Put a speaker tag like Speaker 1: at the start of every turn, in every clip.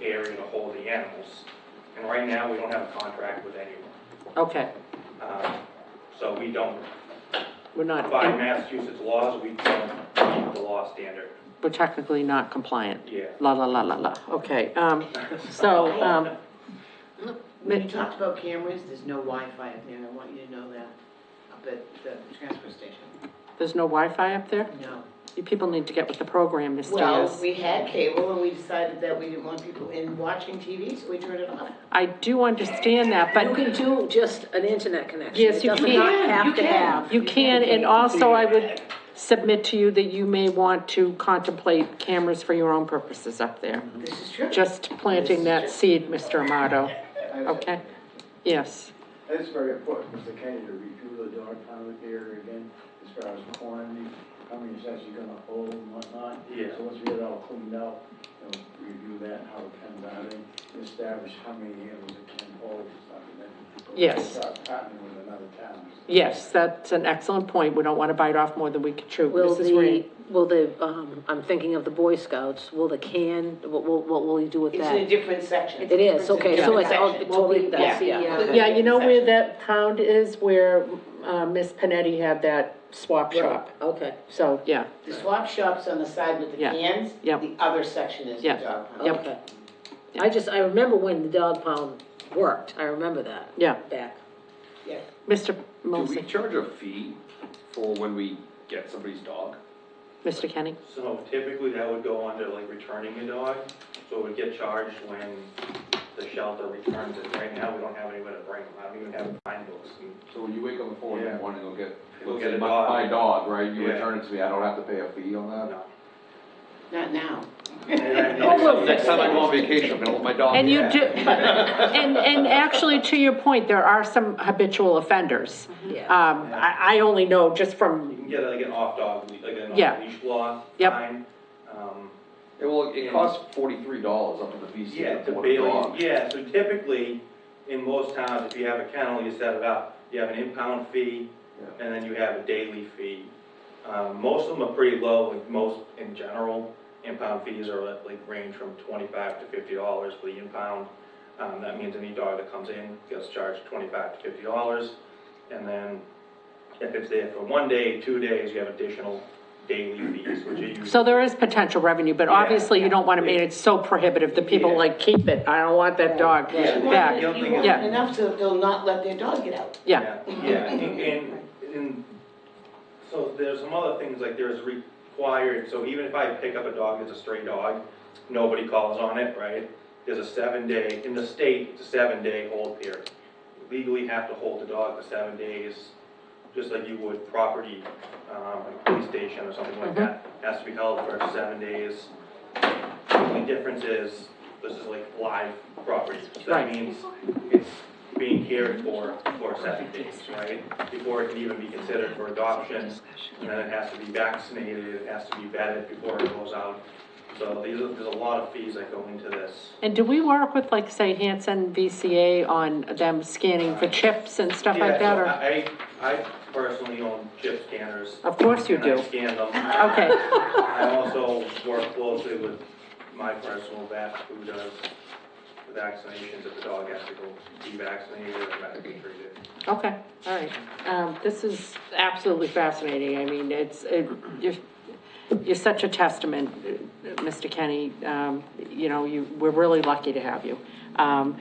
Speaker 1: area to hold the animals. And right now, we don't have a contract with anyone.
Speaker 2: Okay,
Speaker 1: Um, So we don't,
Speaker 2: we're not,
Speaker 1: by Massachusetts laws, we don't keep the law standard.
Speaker 2: we're technically not compliant.
Speaker 1: Yeah.
Speaker 2: La, la, la, la, la, okay, um, so, um,
Speaker 3: Look, When you
Speaker 2: Ma-
Speaker 3: talked about cameras, there's no Wi-Fi up there, I want you to know that, up at the transfer station.
Speaker 2: there's no Wi-Fi up there?
Speaker 3: No.
Speaker 2: You people need to get with the program, Mr.
Speaker 3: Well,
Speaker 2: Diaz.
Speaker 3: we had cable and we decided that we didn't want people in watching TV, so we turned it off.
Speaker 2: I do understand that,
Speaker 4: You
Speaker 2: but
Speaker 4: can do just an internet connection.
Speaker 2: Yes, you
Speaker 4: It
Speaker 2: can.
Speaker 4: does not have to
Speaker 3: You can.
Speaker 4: have.
Speaker 2: you can, and also I would submit to you that you may want to contemplate cameras for your own purposes up there.
Speaker 3: This is true.
Speaker 2: Just planting that seed, Mr. Amato, okay? Yes,
Speaker 5: It's very important, Mr. Kenny, to review the dog pound area again, as far as quantity, how many is actually gonna hold and whatnot.
Speaker 1: Yeah.
Speaker 5: So once we get it all cleaned up, you know, review that, how it comes out, and establish how many animals it can hold and stuff, and then. we'll
Speaker 2: Yes.
Speaker 5: Start partnering with another town.
Speaker 2: yes, that's an excellent point, we don't want to bite off more than we can chew.
Speaker 4: Will
Speaker 2: Mrs. Green?
Speaker 4: the, will the, um, I'm thinking of the Boy Scouts, will the can, what, what, what will you do with
Speaker 3: It's in a
Speaker 4: that?
Speaker 3: different section.
Speaker 4: It is, okay,
Speaker 3: It's a
Speaker 4: so
Speaker 3: different
Speaker 4: it's all
Speaker 3: section.
Speaker 4: totally, that's,
Speaker 3: Yeah.
Speaker 4: yeah.
Speaker 2: Yeah, you know where that pound is, where uh, Miss Panetti had that swap shop?
Speaker 4: Okay.
Speaker 2: So, yeah,
Speaker 3: The swap shop's on the side with the
Speaker 2: Yeah.
Speaker 3: cans.
Speaker 2: Yep.
Speaker 3: The other section is the
Speaker 2: Yep.
Speaker 3: dog pound.
Speaker 2: Yep.
Speaker 4: Okay. I just, I remember when the dog pound worked, I remember that.
Speaker 2: yeah.
Speaker 4: Back.
Speaker 3: Yeah.
Speaker 2: Mr.
Speaker 6: Do we
Speaker 2: Molson,
Speaker 6: charge a fee for when we get somebody's dog?
Speaker 2: Mr. Kenny?
Speaker 1: So typically, that would go under like returning a dog, so it would get charged when the shelter returns it. Right now, we don't have anywhere to bring them, I don't even have fine books.
Speaker 6: So when you wake up before
Speaker 1: Yeah.
Speaker 6: that morning, you'll get,
Speaker 1: You'll
Speaker 6: let's
Speaker 1: get
Speaker 6: say,
Speaker 1: a
Speaker 6: my,
Speaker 1: dog.
Speaker 6: my dog, right? You
Speaker 1: Yeah.
Speaker 6: return it to me, I don't have to pay a fee on that?
Speaker 1: No.
Speaker 3: Not now.
Speaker 6: So Oh, Next time I go on vacation, I'm gonna let my dog.
Speaker 2: And you
Speaker 6: in.
Speaker 2: do, and, and actually, to your point, there are some habitual offenders.
Speaker 3: Mm-hmm.
Speaker 4: Yeah.
Speaker 2: Um, I, I only know just
Speaker 1: You
Speaker 2: from,
Speaker 1: can get like an off dog, like an
Speaker 2: Yeah.
Speaker 1: off leash law.
Speaker 2: Yep.
Speaker 1: fine. Um,
Speaker 6: Yeah, well, it costs forty-three dollars up to the fee
Speaker 1: Yeah,
Speaker 6: schedule
Speaker 1: to
Speaker 6: for a
Speaker 1: bail,
Speaker 6: dog.
Speaker 1: yeah, so typically, in most towns, if you have a kennel, you set it up, you have an impound fee,
Speaker 6: Yeah.
Speaker 1: and then you have a daily fee. Um, most of them are pretty low, like most in general, impound fees are like- like range from twenty-five to fifty dollars for the impound. Um, that means any dog that comes in gets charged twenty-five to fifty dollars, and then if it's there for one day, two days, you have additional daily fees, which are usually.
Speaker 2: so there is potential revenue, but
Speaker 1: Yeah.
Speaker 2: obviously you don't want to make it so prohibitive that people
Speaker 1: Yeah.
Speaker 2: like, keep it, I don't want that dog
Speaker 1: Yeah.
Speaker 2: back.
Speaker 1: Yeah.
Speaker 3: You want
Speaker 2: Yeah.
Speaker 3: enough so that they'll not let their dog get out.
Speaker 2: Yeah,
Speaker 1: Yeah, and, and- and, so there's some other things, like there's required, so even if I pick up a dog that's a stray dog, nobody calls on it, right? There's a seven day, in the state, it's a seven day hold period. Legally have to hold the dog for seven days, just like you would property, um, like police station or something like that,
Speaker 2: Mm-hmm.
Speaker 1: has to be held for seven days. The only difference is, this is like live property, so that
Speaker 2: Right.
Speaker 1: means it's being cared for for seven days, right? Before it can even be considered for adoption, and then it has to be vaccinated, it has to be vetted before it goes out. So these are, there's a lot of fees that go into this.
Speaker 2: and do we work with, like, say, Hanson VCA on them scanning for chips and stuff like
Speaker 1: Yeah,
Speaker 2: that,
Speaker 1: so
Speaker 2: or?
Speaker 1: I, I personally own chip scanners.
Speaker 2: Of course you
Speaker 1: And
Speaker 2: do,
Speaker 1: I scan them.
Speaker 2: okay,
Speaker 1: I also work closely with my personal vet who does the vaccinations if the dog has to go be vaccinated or medically treated.
Speaker 2: Okay, all right. Um, this is absolutely fascinating. I mean, it's, it, you're, you're such a testament, uh, Mr. Kenny. Um, you know, you, we're really lucky to have you. Um,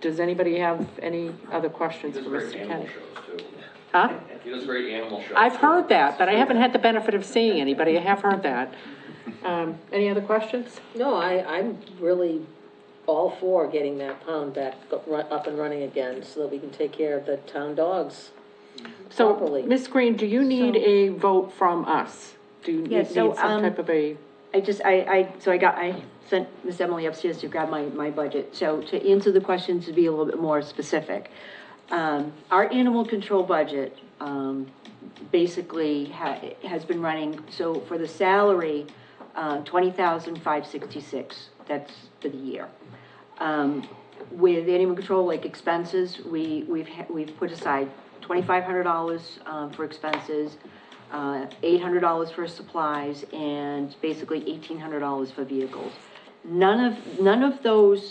Speaker 2: does anybody have any other
Speaker 6: He
Speaker 2: questions
Speaker 6: does
Speaker 2: for
Speaker 6: great
Speaker 2: Mr.
Speaker 6: animal
Speaker 2: Kenny?
Speaker 6: shows too.
Speaker 2: Huh?
Speaker 6: He does great animal shows.
Speaker 2: I've
Speaker 6: too.
Speaker 2: heard that, but I haven't had the benefit of seeing anybody. I have heard that. Um, any other questions?
Speaker 4: No, I, I'm really all for getting that pound back, go- run- up and running again, so that we can take care of the town dogs.
Speaker 2: So,
Speaker 4: Properly.
Speaker 2: Ms. Green, do you need
Speaker 7: So-
Speaker 2: a vote from us? Do you need
Speaker 7: Yeah,
Speaker 2: need
Speaker 7: so,
Speaker 2: some
Speaker 7: um,
Speaker 2: type of a,
Speaker 7: I just, I, I, so I got, I sent Miss Emily upstairs to grab my, my budget. So to answer the question, to be a little bit more specific, um, our animal control budget, um, basically ha- has been running, so for the salary, uh, twenty thousand five sixty-six, that's for the year. Um, with animal control, like expenses, we, we've, ha- we've put aside twenty-five hundred dollars, um, for expenses, uh, eight hundred dollars for supplies, and basically eighteen hundred dollars for vehicles. None of, none of those